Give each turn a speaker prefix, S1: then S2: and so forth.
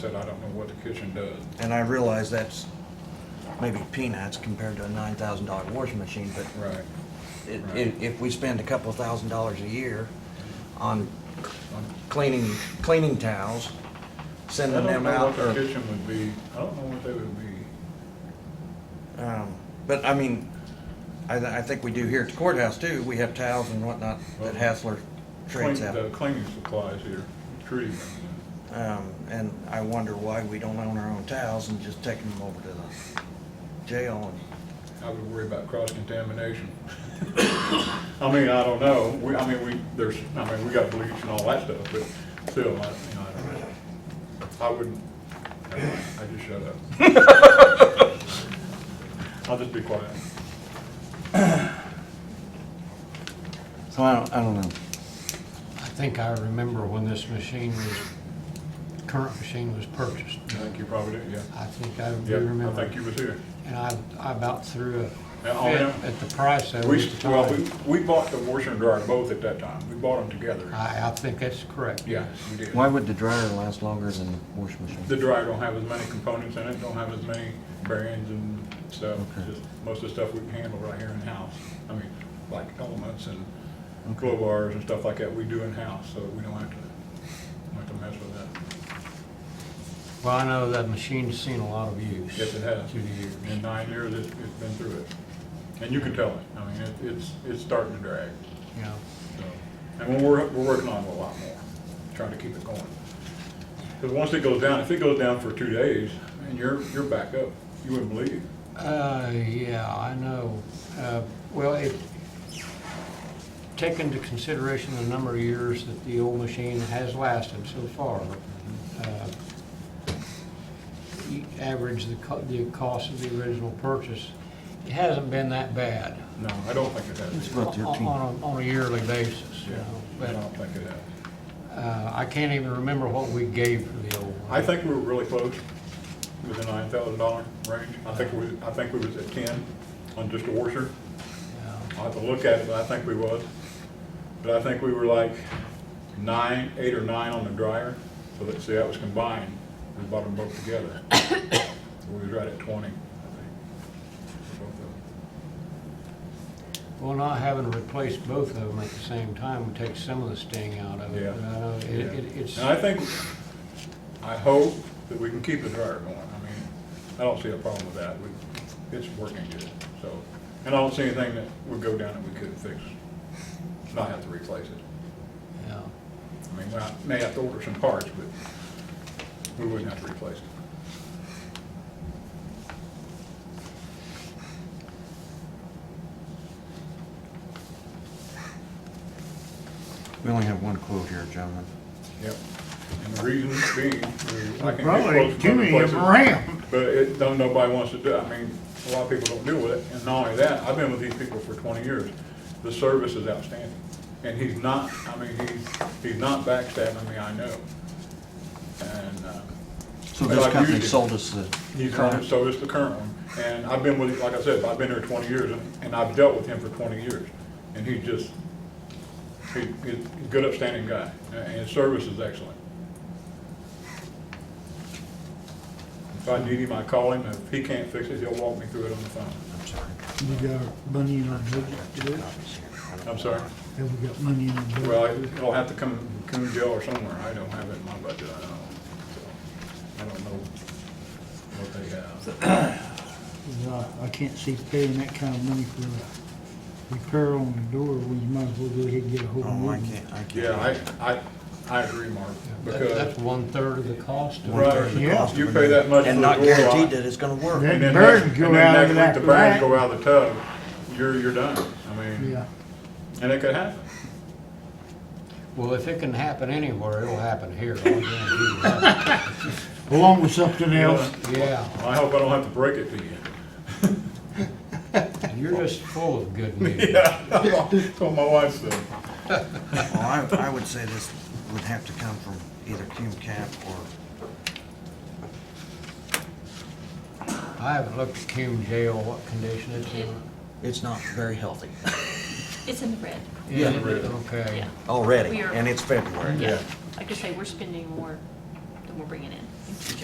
S1: Said, I don't know what the kitchen does.
S2: And I realize that's maybe peanuts compared to a nine thousand dollar washing machine, but
S1: Right.
S2: it-
S1: Right.
S2: if, if we spend a couple thousand dollars a year on on cleaning, cleaning towels,
S1: I
S2: sending
S1: don't
S2: them
S1: know
S2: out,
S1: what the
S2: or,
S1: kitchen would be, I don't know what they would be.
S2: um, but I mean, I, th- I think we do here at the courthouse too, we have towels and whatnot that Hassler trades
S1: Clean-
S2: out.
S1: The cleaning supplies here, treating them.
S2: Um, and I wonder why we don't own our own towels and just take them over to the jail
S1: I would worry about cross-contamination. I mean, I don't know, we, I mean, we, there's, I mean, we got bleach and all that stuff, but still, I, you know, I don't know. I wouldn't, never mind, I just shut up. I'll just be quiet.
S2: and, so I don't, I don't know.
S3: I think I remember when this machine was, current machine was purchased.
S1: I think you probably did, yeah.
S3: I think I do
S1: Yeah, I
S3: remember.
S1: think you was here.
S3: And I, I about threw a
S1: Yeah, oh,
S3: fit
S1: yeah.
S3: at the price of
S1: We,
S3: it.
S1: well, we, we bought the washer and dryer both at that time. We bought them together.
S3: I, I think that's correct.
S1: Yeah, we did.
S2: Why would the dryer last longer than the washing machine?
S1: The dryer don't have as many components in it, don't have as many bearings and stuff.
S2: Okay.
S1: Just Most of the stuff we can handle right here in-house. I mean, like elements and glow bars and stuff like that, we do in-house, so we don't have to, don't have to mess with that.
S3: Well, I know that machine's seen a lot of use.
S1: Yes, it has.
S3: Through the
S1: In
S3: years.
S1: nine years, it's, it's been through it. And you can tell it. I mean, it, it's, it's starting to drag,
S3: Yeah.
S1: so. And we're, we're working on it a lot more, trying to keep it going. Because once it goes down, if it goes down for two days, and you're, you're back up, you wouldn't believe it.
S3: Uh, yeah, I know. Uh, well, it, take into consideration the number of years that the old machine has lasted so far, uh, you average the co- the cost of the original purchase, it hasn't been that bad
S1: No, I don't think it has.
S2: About
S3: on,
S2: 13.
S3: on a- on a yearly basis, you
S1: Yeah,
S3: know.
S1: I
S3: But,
S1: don't think it has.
S3: uh, I can't even remember what we gave for the old
S1: I
S3: one.
S1: think we were really close with the nine thousand dollar range. I think we, I think we was at ten on just a washer.
S3: Yeah.
S1: I'll have to look at it, but I think we was. But I think we were like nine, eight or nine on the dryer. So let's see, that was combined. We bought them both together. So We was right at twenty, I think. for both of them.
S3: Well, not having to replace both of them at the same time would take some of the sting out of it.
S1: Yeah.
S3: but I know Uh, it-
S1: Yeah.
S3: it- It's,
S1: And I think, I hope that we can keep the dryer going. I mean, I don't see a problem with that. We, it's working good, so. And I don't see anything that would go down that we couldn't fix, not have to replace it.
S3: yeah.
S1: I mean, we may have to order some parts, but we wouldn't have to replace it.
S2: We only have one quote here, gentlemen.
S1: Yep. And the reason being, we- I can get
S4: Probably
S1: quotes
S4: too
S1: from
S4: many
S1: other
S4: of them
S1: places,
S4: around.
S1: but it, don't, nobody wants to do, it. I mean, a lot of people don't deal with it. And not only that, I've been with these people for twenty years. The service is outstanding. And he's not, I mean, he's, he's not backstabbing me, I know. And, uh.
S2: So
S1: but
S2: this
S1: I've
S2: company
S1: used it.
S2: sold us the
S1: He's on,
S2: current?
S1: so is the current one. And I've been with, like I said, I've been here twenty years and, and I've dealt with him for twenty years. And he just, he, he's a good upstanding guy and his service is excellent. If I need him, I call him. If he can't fix it, he'll walk me through it on the phone.
S2: I'm sorry.
S4: We got money in our budget for
S2: Two
S4: this,
S2: copies here. I don't
S1: I'm
S2: know
S1: sorry.
S2: why.
S4: and we got money in our budget.
S1: Well, it'll have to come, come to jail or somewhere. I don't have it in my budget, I don't. So, I don't know what they have.
S4: 'Cause I- I can't see paying that kind of money for a repair on the door, we might as well go ahead and get a whole new
S2: Oh, I
S4: one.
S2: can't, I can't.
S1: Yeah, I, I, I agree, Mark,
S3: That-
S1: because.
S3: That's one-third of the cost. of it.
S1: Right,
S4: Yeah.
S1: you pay that much for
S2: And
S1: the door
S2: not guaranteed
S1: lock.
S2: that it's gonna work.
S4: Yeah.
S1: And then
S4: Birds
S1: next-
S4: go
S1: and then
S4: out
S1: next
S4: of
S1: week
S4: that
S1: The birds
S4: rack.
S1: go out of the tub, you're, you're done. I mean,
S4: Yeah,
S1: and it could happen.
S3: Well, if it can happen anywhere, it'll happen here. I guarantee you that.
S4: along with something else.
S3: Yeah,
S1: I hope I don't have to break it to you.
S3: you're just full of good news.
S1: Yeah, told my wife so.
S2: Well, I, I would say this would have to come from either Cume Cap or,
S3: I haven't looked at Cume Jail, what condition it's in.
S2: it's not very healthy
S5: It's in the red.
S2: Yeah.
S3: Is it? Okay.
S5: Yeah.
S2: already,
S5: We are-
S2: and it's February.
S1: Yeah.
S5: Like I say, we're spending more and we'll bring it in.